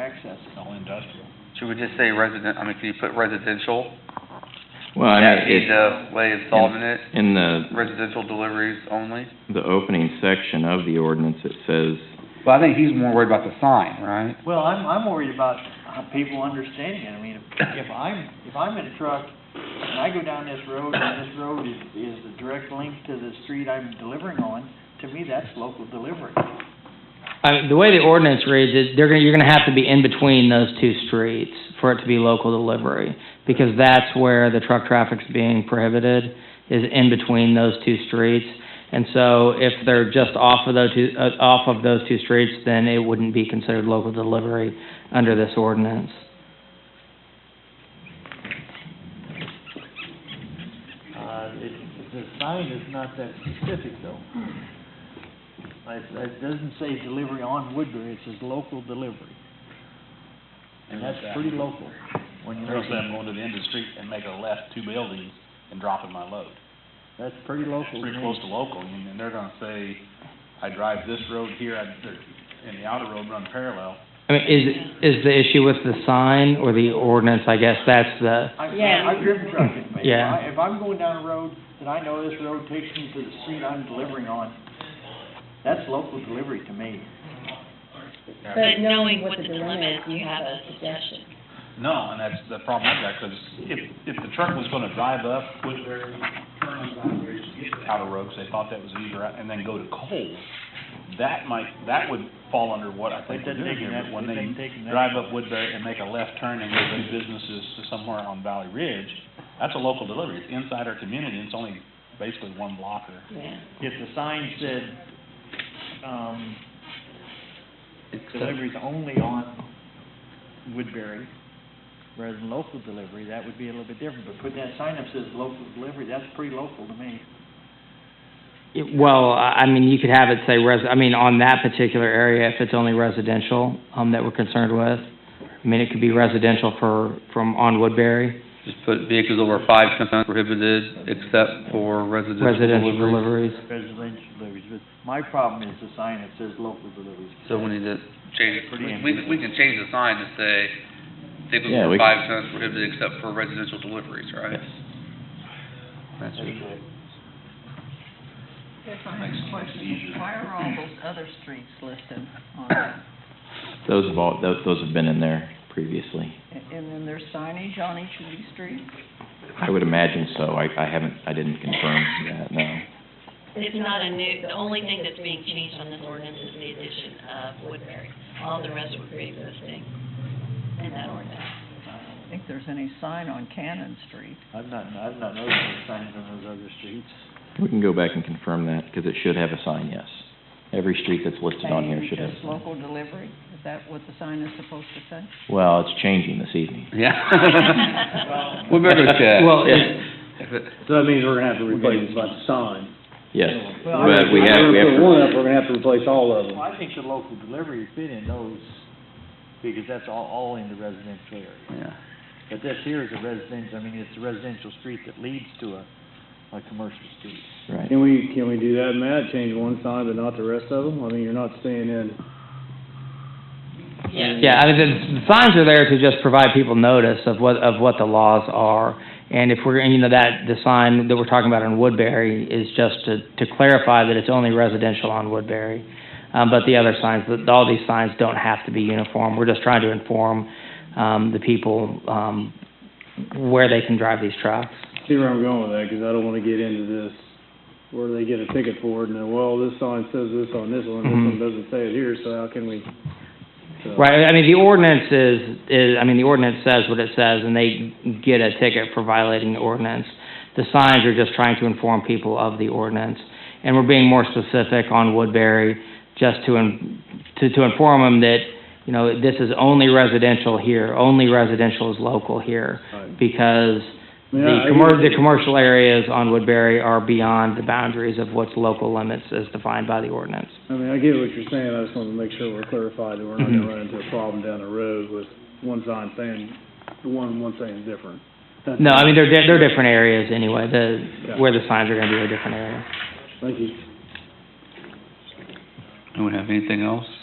access, it's all industrial. Should we just say resident, I mean, can you put residential? Well, I That'd be mean, it, the way of solving it, in the, residential deliveries only? the opening section of the ordinance, it says, Well, I think he's more worried about the sign, right? Well, I'm, I'm worried about uh, people understanding it. I mean, if if I'm, if I'm in a truck and I go down this road and this road is, is the direct link to the street I'm delivering on, to me, that's local delivery. I mean, the way the ordinance reads is, they're gonna, you're gonna have to be in between those two streets for it to be local delivery, because that's where the truck traffic's being prohibited, is in between those two streets. And so if they're just off of those two, uh, off of those two streets, then it wouldn't be considered local delivery under this ordinance. Uh, it, the sign is not that specific though. It, it doesn't say delivery on Woodbury, it says local delivery. And that's pretty local when you look Thursday, at I'm it. going to the end of the street and make a left two buildings and dropping my load. That's pretty local. Pretty close to local, and and they're gonna say, I drive this road here, I, they're- and the outer road run parallel. I mean, is, is the issue with the sign or the ordinance, I guess, that's the, I've, Yeah. I've driven trucks, and if Yeah. I, if I'm going down a road that I know this road takes me to the street I'm delivering on, that's local delivery to me. But knowing what the dilemma is, you have a suggestion. No, and that's the problem I've got, 'cause if, if the truck was gonna drive up, put their, turn around, or just get to the outer road, 'cause they thought that was easier, and then go to Cole, that might, that would fall under what I think They've we're been doing taking here, that, but when they've they been taking that. drive up Woodbury and make a left turn and go to businesses to somewhere on Valley Ridge, that's a local delivery. It's inside our community, and it's only basically one block or Yeah. If the sign said, um, deliveries only on Woodbury, rather than local delivery, that would be a little bit different, but put that sign up says local delivery, that's pretty local to me. It- Well, I I mean, you could have it say res, I mean, on that particular area, if it's only residential, um, that we're concerned with. I mean, it could be residential for, from on Woodbury, Just put vehicles over five tons prohibited except for residential residential deliveries. deliveries. Residential deliveries, but my problem is the sign that says local deliveries. So we need to change it, Pretty we- we, we can change the sign to say vehicles Yeah, over we five tons prohibited except for residential deliveries, right? That's That's good. Here's my next question, why are all those other streets listed on that? those have all, those, those have been in there previously. And- And then there's signage on each of these streets? I would imagine so. I, I haven't, I didn't confirm that, no. It's not a new, the only thing that's being changed on this ordinance is the addition of Woodbury. All the rest were pre-existing in that ordinance. I don't think there's any sign on Cannon Street. I've not, I've not noticed any signs on those other streets. We can go back and confirm that, because it should have a sign, yes. Every street that's listed on here Maybe should have. a Just sign. local delivery, is that what the sign is supposed to say? Well, it's changing this evening. Yeah. We better look at. Well, yeah. it- If it- So that means we're gonna have to replace the sign. Yes, Well, I- but we have, we have to. If we put one up, we're gonna have to replace all of them. Well, I think the local delivery fit in those, because that's all, all in the residential area. Yeah. But this here is a residential, I mean, it's a residential street that leads to a, a commercial street. Right. Can we, can we do that, Matt, change one sign but not the rest of them? I mean, you're not staying in. Yeah, I mean, the- the signs are there to just provide people notice of what, of what the laws are. And if we're, and, you know, that, the sign that we're talking about on Woodbury is just to, to clarify that it's only residential on Woodbury. Um, but the other signs, the- all these signs don't have to be uniform. We're just trying to inform, um, the people, um, where they can drive these trucks. See where I'm going with that, 'cause I don't wanna get into this, where they get a ticket for it, and then, well, this sign says this on this one, this one Mhm. doesn't say it here, so how can we? so- Right, I mean, the ordinance is, is, I mean, the ordinance says what it says, and they get a ticket for violating the ordinance. The signs are just trying to inform people of the ordinance, and we're being more specific on Woodbury, just to, in- to, to inform them that, you know, this is only residential here, only residential is local here, Right. because I mean, the I- I commer, get- the commercial areas on Woodbury are beyond the boundaries of what's local limits as defined by the ordinance. I mean, I get what you're saying, I just wanna make sure we're clarified that we're not Mhm. gonna run into a problem down the road with one sign saying, the one, one saying different. That's- No, I mean, they're, di- they're different areas anyway, the, Yeah. where the signs are gonna be a different area. Thank you. Anyone have anything else?